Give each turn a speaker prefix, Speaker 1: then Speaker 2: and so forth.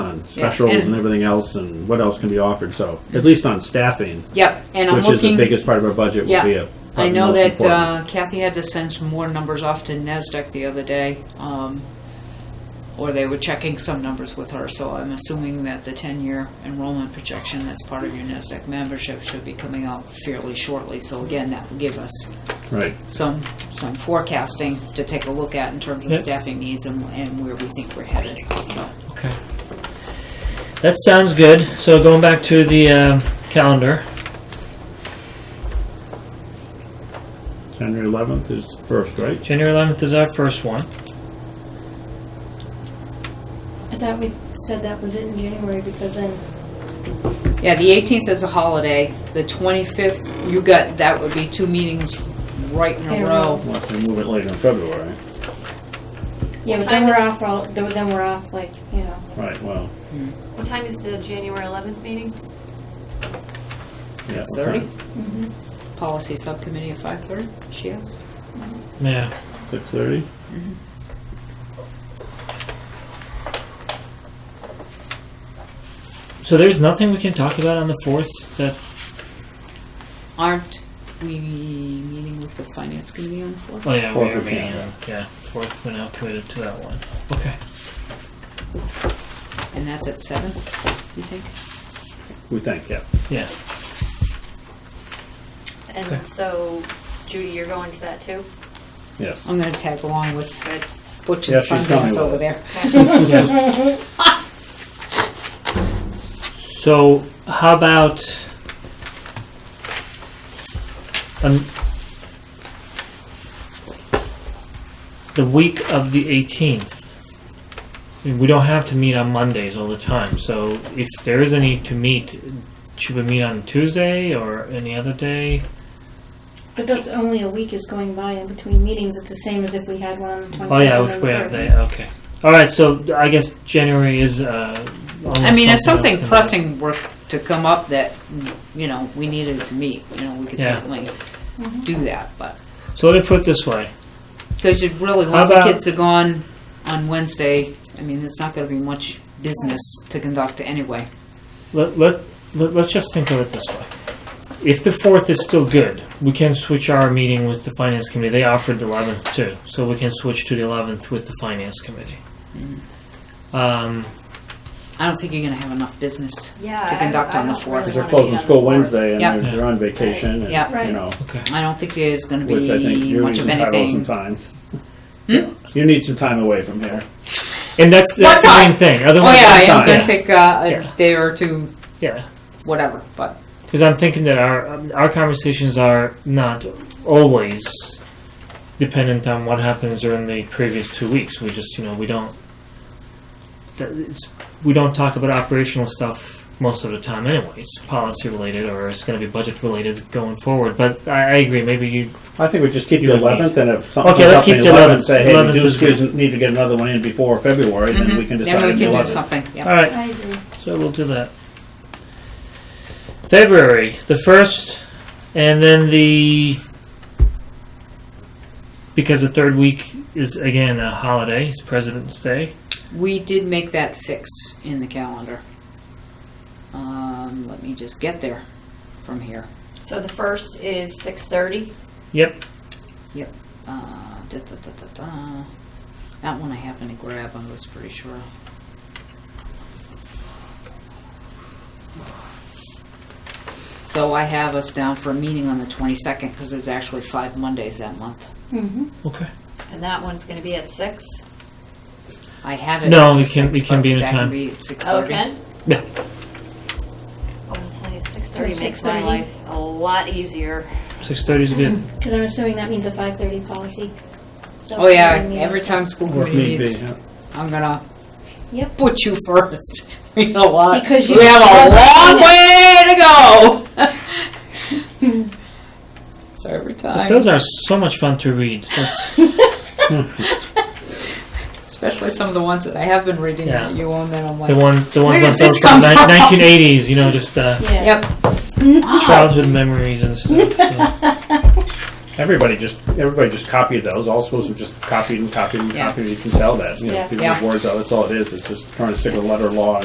Speaker 1: on specials
Speaker 2: and-
Speaker 1: and everything else and what else can be offered. So at least on staffing,
Speaker 2: Yep, and I'm
Speaker 1: which is the
Speaker 2: looking.
Speaker 1: biggest part of our budget, will
Speaker 2: Yeah.
Speaker 1: be a.
Speaker 2: I
Speaker 1: probably
Speaker 2: know
Speaker 1: most
Speaker 2: that
Speaker 1: important.
Speaker 2: uh, Kathy had to send some more numbers off to NASDAQ the other day, um, or they were checking some numbers with her, so I'm assuming that the 10-year enrollment projection that's part of your NASDAQ membership should be coming out fairly shortly, so again, that will give us
Speaker 1: Right.
Speaker 2: some, some forecasting to take a look at in terms of
Speaker 3: Yep.
Speaker 2: staffing needs and and where we think we're headed, so.
Speaker 3: Okay. That sounds good. So going back to the um, calendar,
Speaker 1: January 11th is first, right?
Speaker 3: January 11th is our first one.
Speaker 4: I thought we said that was it in January because then
Speaker 2: Yeah, the 18th is a holiday, the 25th, you got, that would be two meetings right in
Speaker 4: In
Speaker 2: a row.
Speaker 4: a row.
Speaker 1: Unless they move it later in February.
Speaker 4: yeah, but then we're off. for all- Then then we're off like you know.
Speaker 1: Right, well,
Speaker 5: What time is the January 11th meeting?
Speaker 2: Six
Speaker 1: Yeah, okay.
Speaker 2: thirty, policy subcommittee at five thirty, she asked.
Speaker 3: Yeah.
Speaker 1: 6:30?
Speaker 3: So there's nothing we can talk about on the 4th that
Speaker 2: Aren't we meeting with the finance committee on the fourth?
Speaker 3: Oh yeah,
Speaker 1: Fourth
Speaker 3: we are
Speaker 1: we
Speaker 3: meeting.
Speaker 1: can,
Speaker 3: on- Yeah, fourth. We're now committed to that one. Okay.
Speaker 2: And that's at seven, you think?
Speaker 1: We think, yeah.
Speaker 3: Yeah. Okay.
Speaker 5: And so Judy, you're going to that too?
Speaker 1: Yes.
Speaker 2: I'm gonna tag along with
Speaker 5: Good.
Speaker 2: Butch
Speaker 1: Yeah,
Speaker 2: and
Speaker 1: she's coming
Speaker 2: Sundance
Speaker 1: with
Speaker 2: over
Speaker 1: us.
Speaker 2: there.
Speaker 3: So how about um, the week of the 18th? I mean, We don't have to meet on Mondays all the time. So if there is a need to meet, should we meet on Tuesday or any other day?
Speaker 4: But that's only a week is going by in between meetings. It's the same as if we had one on the 25th.
Speaker 3: Oh yeah,
Speaker 4: and
Speaker 3: we
Speaker 4: then
Speaker 3: we
Speaker 4: the
Speaker 3: have
Speaker 4: 30th.
Speaker 3: that. Okay. All right. So I guess January is. Uh,
Speaker 2: I mean, if
Speaker 3: almost else
Speaker 2: something
Speaker 3: can-
Speaker 2: pressing were to come up that, you know, we needed to meet, you know, we could
Speaker 3: Yeah.
Speaker 2: certainly do that, but.
Speaker 3: So let me put it this way.
Speaker 2: Because you really, once the
Speaker 3: about-
Speaker 2: kids are gone on Wednesday, I mean, there's not gonna be much business to conduct anyway.
Speaker 3: Let, let, let, us just think of it this way. If the fourth is still good, we can switch our meeting with the finance committee. They offered the eleventh too, so we can switch to the eleventh with the finance committee.
Speaker 2: Mm.
Speaker 3: Um,
Speaker 2: I don't think you're gonna have enough business.
Speaker 5: Yeah.
Speaker 2: To
Speaker 5: I-
Speaker 2: conduct
Speaker 5: I
Speaker 2: on the
Speaker 5: don't
Speaker 2: fourth.
Speaker 1: Because
Speaker 5: really
Speaker 1: they're
Speaker 5: wanna
Speaker 1: closing
Speaker 5: meet on the
Speaker 1: school
Speaker 5: fourth.
Speaker 1: Wednesday
Speaker 2: Yeah.
Speaker 1: and they're- they're on vacation
Speaker 2: Yeah.
Speaker 1: and, you
Speaker 4: Right.
Speaker 1: know,
Speaker 3: okay.
Speaker 2: I don't think there's gonna
Speaker 1: which I think
Speaker 2: be
Speaker 1: you need
Speaker 2: much of
Speaker 1: entitled some
Speaker 2: anything. Hmm?
Speaker 1: time. You need some time away from here.
Speaker 3: And that's that's
Speaker 2: What
Speaker 3: the
Speaker 2: time?
Speaker 3: main thing.
Speaker 2: Oh
Speaker 3: Otherwise,
Speaker 2: yeah, I am
Speaker 3: yeah,
Speaker 2: gonna take uh,
Speaker 3: Yeah.
Speaker 2: a day or two,
Speaker 3: yeah.
Speaker 2: whatever, but,
Speaker 3: Because I'm thinking that our um, our conversations are not always dependent on what happens during the previous two weeks. We just you know we don't that it's, we don't talk about operational stuff most of the time, anyways, policy related or it's going to be budget related going forward. But I, I agree. Maybe you
Speaker 1: I think we just keep
Speaker 3: You
Speaker 1: the
Speaker 3: would need-
Speaker 1: eleventh and if something
Speaker 3: Okay,
Speaker 1: comes
Speaker 3: let's
Speaker 1: up on
Speaker 3: keep
Speaker 1: the
Speaker 3: the
Speaker 1: eleventh, say, hey, we
Speaker 3: 11th
Speaker 1: do
Speaker 3: is
Speaker 1: excuse- need to get another one in before February, then we can
Speaker 2: Mhm.
Speaker 1: decide
Speaker 2: then
Speaker 1: on
Speaker 2: we
Speaker 1: the
Speaker 2: can do
Speaker 1: eleventh.
Speaker 2: something, yeah.
Speaker 3: all right.
Speaker 4: I agree.
Speaker 3: So we'll do that. February, the first, and then the. Because the third week is again a holiday, it's President's Day.
Speaker 2: We did make that fix in the calendar. Um, let me just get there from here.
Speaker 5: So the first is 6:30.
Speaker 3: Yep.
Speaker 2: Uh, da, da, da, da, da. That one I happened to grab, I was pretty sure. So I have us down for a meeting on the 22nd, because there's actually five Mondays that month.
Speaker 4: Mm-hmm.
Speaker 3: Okay.
Speaker 5: And that one's going to be at 6.
Speaker 2: I had it.
Speaker 3: No,
Speaker 2: for
Speaker 3: it can-
Speaker 2: six,
Speaker 3: it can
Speaker 2: but
Speaker 3: be in a
Speaker 2: that can
Speaker 3: time.
Speaker 2: be at six
Speaker 5: Oh,
Speaker 2: thirty.
Speaker 5: Ken?
Speaker 3: Yeah.
Speaker 5: Oh, I'll tell you, 6:30 makes
Speaker 4: 6:30.
Speaker 5: my life a lot easier.
Speaker 3: Six thirty is good.
Speaker 4: Because I'm assuming that means a 5:30 policy. So
Speaker 2: Oh yeah,
Speaker 4: meeting.
Speaker 2: every time school
Speaker 1: Or if
Speaker 2: committee
Speaker 1: need be,
Speaker 2: meets,
Speaker 1: yeah.
Speaker 2: I'm gonna
Speaker 4: Yep.
Speaker 2: put you first. You know what?
Speaker 4: Because you-
Speaker 2: We have a long way to go. So every
Speaker 3: But
Speaker 2: time,
Speaker 3: those are so much fun to read. That's-
Speaker 2: especially some of the ones that I have been reading
Speaker 3: Yeah.
Speaker 2: that you own, that I'm
Speaker 3: the
Speaker 2: like,
Speaker 3: ones, the
Speaker 2: Where
Speaker 3: ones
Speaker 2: did
Speaker 3: left
Speaker 2: this
Speaker 3: over from
Speaker 2: come
Speaker 3: ni-
Speaker 2: from?
Speaker 3: 1980s. You know, just uh,
Speaker 4: Yeah.
Speaker 2: yep.
Speaker 3: childhood memories and stuff. yeah.
Speaker 1: Everybody just, everybody just copied those, all schools have just copied and copied and
Speaker 2: Yeah.
Speaker 1: copied, you can tell that, you know,
Speaker 4: Yeah.
Speaker 1: people oh,
Speaker 2: Yeah.
Speaker 1: words out, that's all it is, it's just trying to stick with letter law